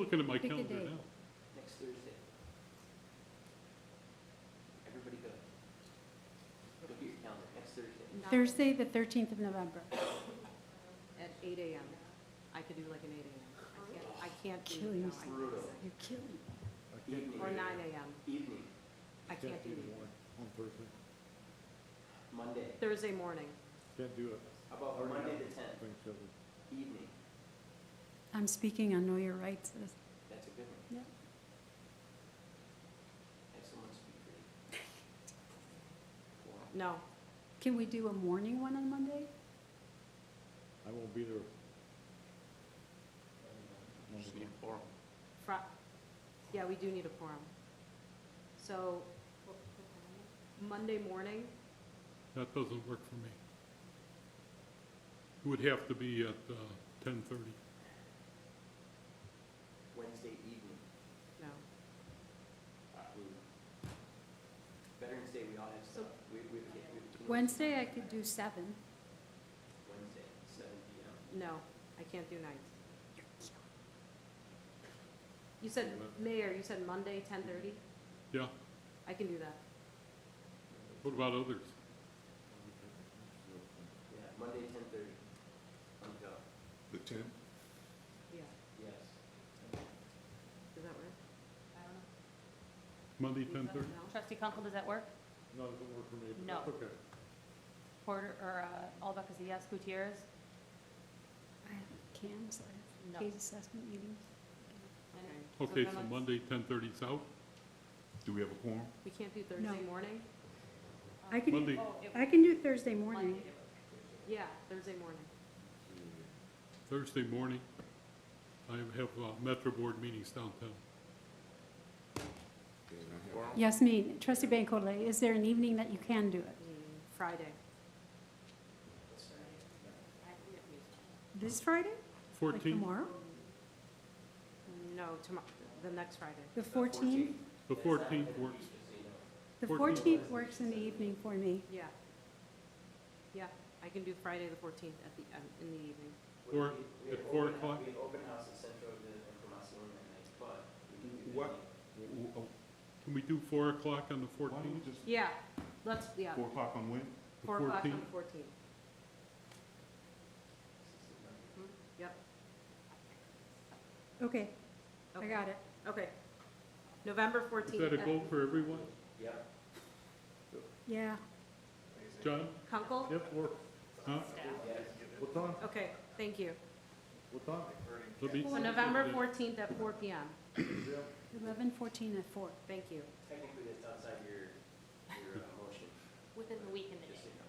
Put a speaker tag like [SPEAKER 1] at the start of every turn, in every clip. [SPEAKER 1] Looking at my
[SPEAKER 2] Pick a
[SPEAKER 1] calendar
[SPEAKER 2] date.
[SPEAKER 1] now.
[SPEAKER 3] next Thursday. Everybody go. Look at your calendar, next Thursday.
[SPEAKER 2] Thursday, the 13th of November.
[SPEAKER 4] At eight AM. I could do like an eight AM. I can't, I can't
[SPEAKER 2] Kill
[SPEAKER 4] do, no,
[SPEAKER 2] yourself.
[SPEAKER 4] I
[SPEAKER 2] You're killing me.
[SPEAKER 3] Evening,
[SPEAKER 4] can't. Or nine AM.
[SPEAKER 3] evening,
[SPEAKER 4] I can't do it.
[SPEAKER 5] On Thursday,
[SPEAKER 3] Monday.
[SPEAKER 4] Thursday morning.
[SPEAKER 5] can't do it,
[SPEAKER 3] How about
[SPEAKER 5] Already
[SPEAKER 3] Monday
[SPEAKER 5] done.
[SPEAKER 3] the tenth,
[SPEAKER 5] things that we-
[SPEAKER 3] evening?
[SPEAKER 2] I'm speaking on Know Your Rights. this-
[SPEAKER 3] That's a good one.
[SPEAKER 2] Yeah.
[SPEAKER 3] Have someone speak for you. Wow.
[SPEAKER 4] No,
[SPEAKER 2] Can we do a morning one on Monday?
[SPEAKER 5] I won't be there.
[SPEAKER 1] Just need four.
[SPEAKER 4] Fri- yeah, we do need a quorum. So, Monday morning,
[SPEAKER 1] That doesn't work for me. It would have to be at uh, ten thirty.
[SPEAKER 3] Wednesday evening,
[SPEAKER 4] no.
[SPEAKER 3] uh, we- Veterans Day, we all have
[SPEAKER 4] So-
[SPEAKER 3] stuff. We, we, we- we-
[SPEAKER 2] Wednesday, I could do 7.
[SPEAKER 3] Wednesday, seven P M.
[SPEAKER 4] No, I can't do nights. You said, Mayor, you said Monday, ten thirty?
[SPEAKER 1] Yeah,
[SPEAKER 4] I can do that.
[SPEAKER 1] what about others?
[SPEAKER 3] Yeah, Monday, ten thirty. I'm go.
[SPEAKER 5] The tenth?
[SPEAKER 4] Yeah,
[SPEAKER 3] Yes.
[SPEAKER 4] does that work?
[SPEAKER 1] Monday, ten thirty?
[SPEAKER 4] No?
[SPEAKER 6] Trustee Kunkel, does that work?
[SPEAKER 5] No, it doesn't work for me, but
[SPEAKER 6] No.
[SPEAKER 5] that's okay.
[SPEAKER 6] Porter, or uh, Albeck is a yes, Gutierrez?
[SPEAKER 2] I have CAMs, I
[SPEAKER 6] No.
[SPEAKER 2] have case assessment meetings.
[SPEAKER 1] Okay, so
[SPEAKER 4] then let's-
[SPEAKER 1] Monday, ten thirty's out?
[SPEAKER 7] Do we have a quorum?
[SPEAKER 4] We can't do Thursday
[SPEAKER 2] No.
[SPEAKER 4] morning?
[SPEAKER 2] I can,
[SPEAKER 1] Monday,
[SPEAKER 2] I can do Thursday morning.
[SPEAKER 4] Yeah, Thursday morning.
[SPEAKER 1] Thursday morning, I have uh, Metro Board meetings downtown.
[SPEAKER 2] Yasmin, trustee Bankole, is there an evening that you can do it?
[SPEAKER 4] Mm, Friday.
[SPEAKER 2] This Friday? Like
[SPEAKER 1] Fourteen,
[SPEAKER 2] tomorrow?
[SPEAKER 4] No, tomorrow, the next Friday.
[SPEAKER 2] The 14th?
[SPEAKER 1] the fourteenth works.
[SPEAKER 2] The
[SPEAKER 1] 14th.
[SPEAKER 2] 14th works in the evening for me.
[SPEAKER 4] Yeah. Yeah, I can do Friday the fourteenth at the, um, in the evening.
[SPEAKER 1] Or
[SPEAKER 3] We- we
[SPEAKER 1] at
[SPEAKER 3] have
[SPEAKER 1] four
[SPEAKER 3] open-
[SPEAKER 1] o'clock?
[SPEAKER 3] We have open house at Centro de Información that night, but we can do the
[SPEAKER 7] What?
[SPEAKER 3] evening.
[SPEAKER 1] Can we do four o'clock on the
[SPEAKER 7] Why don't we
[SPEAKER 1] fourteenth?
[SPEAKER 7] just,
[SPEAKER 4] Yeah, let's, yeah,
[SPEAKER 7] four o'clock on when?
[SPEAKER 4] four o'clock on the fourteenth. Hmm? Yep.
[SPEAKER 2] Okay, I
[SPEAKER 4] okay,
[SPEAKER 2] got it.
[SPEAKER 4] Okay. November
[SPEAKER 1] Is
[SPEAKER 4] fourteenth.
[SPEAKER 1] that a goal for everyone?
[SPEAKER 3] Yep.
[SPEAKER 2] Yeah.
[SPEAKER 1] John?
[SPEAKER 4] Kunkel?
[SPEAKER 1] Yep, or, huh?
[SPEAKER 5] What time,
[SPEAKER 4] Okay, thank you.
[SPEAKER 5] what time?
[SPEAKER 1] Let me-
[SPEAKER 4] So November fourteenth at four P M.
[SPEAKER 2] Eleven, fourteen, and four.
[SPEAKER 4] Thank you.
[SPEAKER 3] Technically, that's outside your, your uh, motion,
[SPEAKER 6] Within the week and the
[SPEAKER 3] just so
[SPEAKER 6] day.
[SPEAKER 3] you know.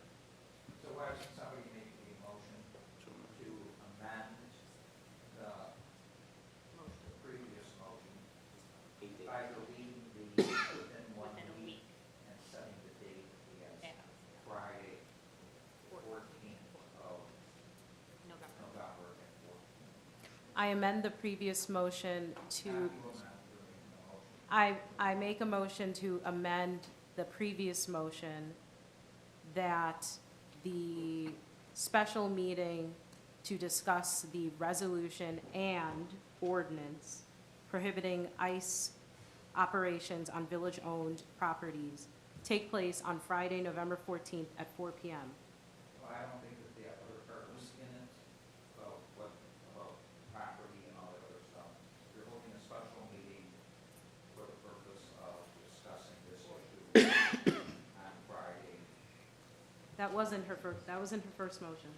[SPEAKER 8] So why should somebody make a motion to amend the previous motion
[SPEAKER 3] Eight days.
[SPEAKER 8] by deleting the within one
[SPEAKER 6] Within a
[SPEAKER 8] week and setting the date
[SPEAKER 6] Yeah,
[SPEAKER 8] as Friday, fourteenth of
[SPEAKER 6] November.
[SPEAKER 8] November at fourteen.
[SPEAKER 4] I amend the previous motion to,
[SPEAKER 8] Not you amend, you're making a motion.
[SPEAKER 4] I, I make a motion to amend the previous motion that the special meeting to discuss the resolution and ordinance prohibiting ICE operations on village-owned properties take place on Friday, November 14th at 4 PM.
[SPEAKER 8] Well, I don't think that the other purpose in it, about what, about property and all that other stuff. You're holding a special meeting for the purpose of discussing this issue on Friday.
[SPEAKER 4] That wasn't her first, that wasn't her first motion.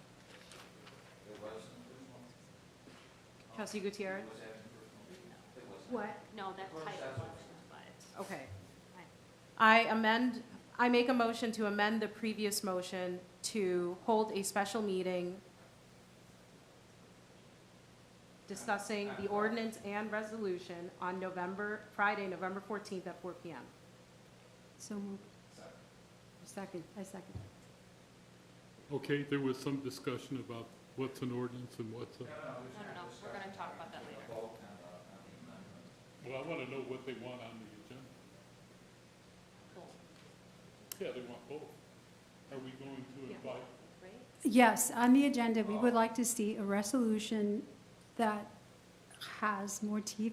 [SPEAKER 8] It wasn't this one?
[SPEAKER 4] Trustee Gutierrez?
[SPEAKER 8] Was that in the original? It wasn't.
[SPEAKER 2] What?
[SPEAKER 6] No, that title wasn't, but
[SPEAKER 4] Okay.
[SPEAKER 6] Aye.
[SPEAKER 4] I amend, I make a motion to amend the previous motion to hold a special meeting discussing the ordinance and resolution on November, Friday, November 14th at 4 PM.
[SPEAKER 2] So moved. Second, I second.
[SPEAKER 1] Okay, there was some discussion about what's an ordinance and what's a,
[SPEAKER 6] no, no, no, we're going to talk about that later.
[SPEAKER 8] Vote on the, on the amendment.
[SPEAKER 1] well, I want to know what they want on the agenda.
[SPEAKER 6] Cool.
[SPEAKER 1] Yeah, they want both. Are we going to
[SPEAKER 4] Yeah.
[SPEAKER 1] invite,
[SPEAKER 6] Right?
[SPEAKER 2] Yes, on the agenda, we would like to see a resolution that has more teeth